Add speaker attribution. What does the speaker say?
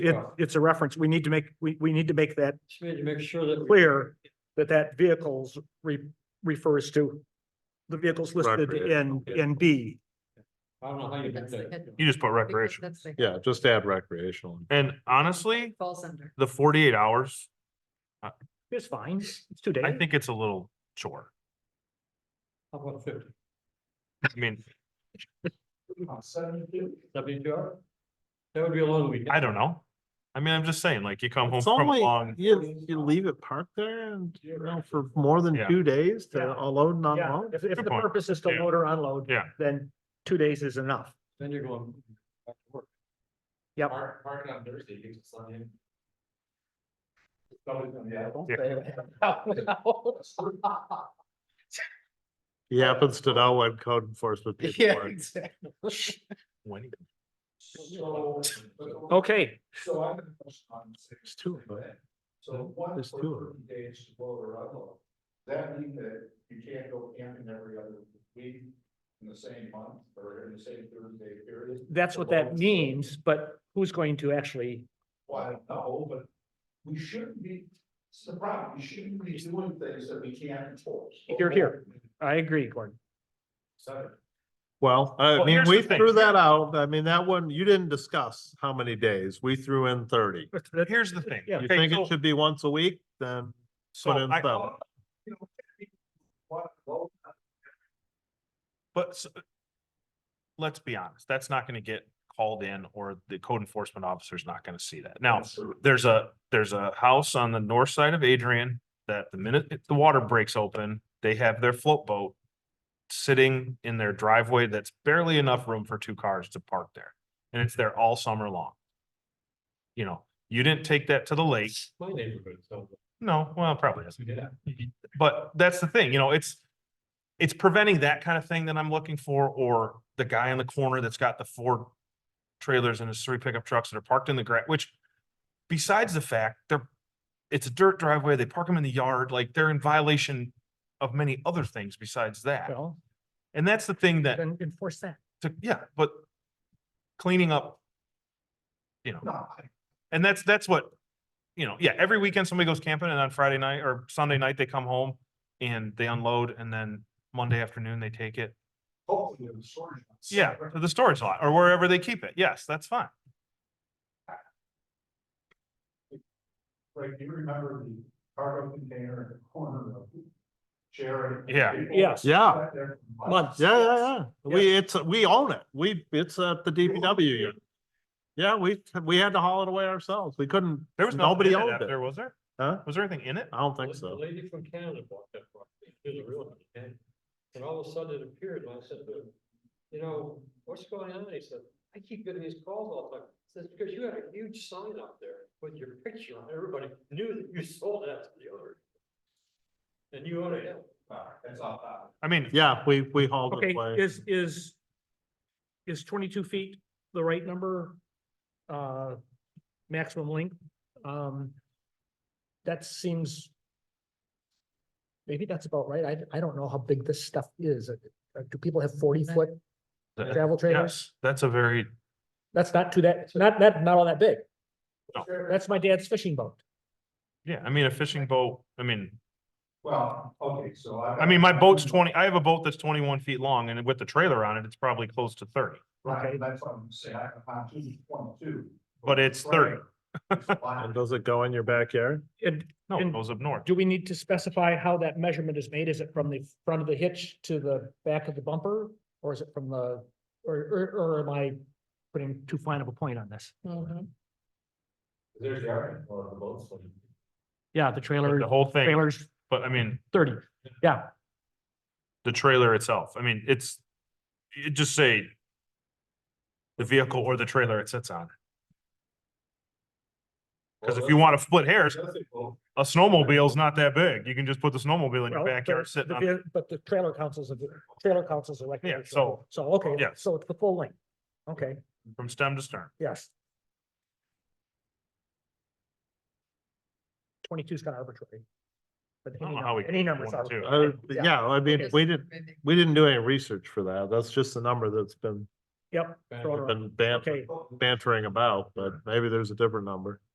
Speaker 1: It,
Speaker 2: Right.
Speaker 1: it's a reference. We need to make, we, we need to make that
Speaker 2: Just need to make sure that. we-
Speaker 1: clear that that vehicles re- refers to the vehicles listed
Speaker 3: Right.
Speaker 1: in, in B.
Speaker 2: I don't know how you did that.
Speaker 3: You just put
Speaker 4: Because
Speaker 3: recreation.
Speaker 4: That's the.
Speaker 5: Yeah, just add recreational.
Speaker 3: And honestly,
Speaker 4: Falls under.
Speaker 3: the forty-eight hours,
Speaker 1: It's fine. It's two days.
Speaker 3: I think it's a little chore.
Speaker 2: How about fifty?
Speaker 3: I mean,
Speaker 2: Seventy-two? Seventy-two hour? That would be a long weekend.
Speaker 3: I don't know. I mean, I'm just saying, like, you come home
Speaker 5: It's
Speaker 3: from a
Speaker 5: only,
Speaker 3: long,
Speaker 5: you, you leave it parked there and, you know, for more than
Speaker 3: Yeah.
Speaker 5: two days
Speaker 1: Yeah.
Speaker 5: to unload and
Speaker 1: Yeah,
Speaker 5: unload.
Speaker 1: if, if the
Speaker 3: Good point.
Speaker 1: purpose is to
Speaker 3: Yeah.
Speaker 1: load or unload.
Speaker 3: Yeah.
Speaker 1: Then two days is enough.
Speaker 2: Then you're going back to work.
Speaker 1: Yep.
Speaker 2: Park, park on Thursday, you can sign in.
Speaker 5: He happens to know what code enforcement people are.
Speaker 3: when you-
Speaker 1: Okay,
Speaker 2: So I'm. on six,
Speaker 5: There's two of them.
Speaker 2: that. So one
Speaker 5: There's
Speaker 2: for
Speaker 5: two of
Speaker 2: thirty days to blow or unload. That mean that you can't go camping every other week in the same month or in the same thirty-day period?
Speaker 1: that's what that means, but who's going to actually,
Speaker 2: Well, I don't know, but we shouldn't be, it's the problem, we shouldn't be doing things that we can't enforce.
Speaker 1: Here, here. I agree, Gordon.
Speaker 2: So,
Speaker 5: Well,
Speaker 3: Well,
Speaker 5: I mean,
Speaker 3: here's the
Speaker 5: we
Speaker 3: thing.
Speaker 5: threw that out. I mean, that one, you didn't discuss how many days. We threw in thirty.
Speaker 1: That's- that's-
Speaker 3: here's the thing.
Speaker 1: Yeah.
Speaker 5: You
Speaker 3: Okay,
Speaker 5: think
Speaker 3: so-
Speaker 5: it should be once a week, then
Speaker 3: So
Speaker 5: put in
Speaker 3: I,
Speaker 5: seven.
Speaker 2: you know, people want to vote,
Speaker 3: but s- let's be honest, that's not gonna get called in or the code enforcement officer's not gonna see that. Now, there's a, there's a house on the north side of Adrian that the minute it- the water breaks open, they have their float boat sitting in their driveway that's barely enough room for two cars to park there. And it's there all summer long. You know, you didn't take that to the lake.
Speaker 2: My neighborhood, so.
Speaker 3: No, well, probably isn't.
Speaker 2: Yeah.
Speaker 3: But that's the thing, you know, it's, it's preventing that kind of thing that I'm looking for, or the guy in the corner that's got the four trailers and his three pickup trucks that are parked in the gra, which besides the fact, they're, it's a dirt driveway, they park them in the yard, like they're in violation of many other things besides that.
Speaker 1: Well,
Speaker 3: And that's the thing that,
Speaker 1: then enforce that.
Speaker 3: to- yeah, but cleaning up, you know,
Speaker 2: No,
Speaker 3: and that's, that's what, you know, yeah, every weekend somebody goes camping and on Friday night or Sunday night, they come home and they unload and then Monday afternoon, they take it.
Speaker 2: hopefully the storage. is-
Speaker 3: Yeah, to the storage lot or wherever they keep it. Yes, that's fine.
Speaker 2: Like, do you remember the cargo container in the corner of Sharon?
Speaker 3: Yeah.
Speaker 1: Yes.
Speaker 5: Yeah.
Speaker 1: Months.
Speaker 5: Yeah, yeah, yeah. We, it's, we own it. We, it's at the DPW. unit. Yeah, we, we had to haul it away ourselves. We couldn't,
Speaker 3: There was
Speaker 5: nobody
Speaker 3: nobody else
Speaker 5: owned it.
Speaker 3: there, was there?
Speaker 5: Huh?
Speaker 3: Was there anything in it?
Speaker 5: I don't think so.
Speaker 2: lady from Canada bought that property, she was a real estate, and all of a sudden it appeared, and I said, to him, you know, what's going on? He said, I keep getting these calls all the time. I Says, because you had a huge sign up there with your picture on, it. everybody knew that you sold that to the owner. And you own it. That's uh, all.
Speaker 3: I mean,
Speaker 5: Yeah, we, we hauled
Speaker 1: Okay,
Speaker 5: it away.
Speaker 1: is, is, is twenty-two feet the right number? Uh, maximum length? Um, that seems. Maybe that's about right. I, I don't know how big this stuff is. Uh, Do people have forty-foot
Speaker 3: th-
Speaker 1: travel trailers?
Speaker 3: yes, that's a very,
Speaker 1: That's not too that, not, not, not all that big.
Speaker 3: No.
Speaker 1: That's my dad's fishing boat.
Speaker 3: yeah, I mean, a fishing boat, I mean,
Speaker 2: Well, okay, so I.
Speaker 3: I mean, my boat's twenty, I have a boat that's twenty-one feet long and with the trailer on it, it's probably close to thirty,
Speaker 1: Right,
Speaker 2: that's what I'm saying, I have a pontoon twenty-two.
Speaker 3: but it's thirty.
Speaker 5: And does it go in your backyard?
Speaker 1: And
Speaker 3: No,
Speaker 1: And
Speaker 3: it goes up north.
Speaker 1: do we need to specify how that measurement is made? Is it from the front of the hitch to the back of the bumper? Or is it from the, or, or, or am I putting too fine of a point on this?
Speaker 2: There's Aaron, or the boats.
Speaker 1: Yeah, the
Speaker 3: but
Speaker 1: trailer,
Speaker 3: The whole thing,
Speaker 1: trailer's
Speaker 3: but I mean,
Speaker 1: thirty. Yeah,
Speaker 3: the trailer itself. I mean, it's, you just say the vehicle or the trailer it sits on. Cause if you want to split hairs, a snowmobile's not that big. You can just put the snowmobile in your
Speaker 1: well,
Speaker 3: backyard
Speaker 1: but
Speaker 3: sitting
Speaker 1: the
Speaker 3: on,
Speaker 1: ve- But the trailer councils, a trailer councils a recreational.
Speaker 3: so-
Speaker 1: So, okay,
Speaker 3: yeah.
Speaker 1: so it's the full length. Okay,
Speaker 3: from stem to stern.
Speaker 1: yes. Twenty-two's kind of arbitrary. But
Speaker 3: I don't
Speaker 1: any
Speaker 3: know how we
Speaker 1: number, any
Speaker 3: got
Speaker 1: number's
Speaker 3: 22.
Speaker 1: arbitrary.
Speaker 5: Uh, yeah, I mean, we didn't, we didn't do any research for that. That's just the number that's been
Speaker 1: Yep.
Speaker 2: Back
Speaker 1: throw it around.
Speaker 5: Been ban-
Speaker 1: Okay.
Speaker 2: Uhum.
Speaker 5: bantering about, but maybe there's a different number.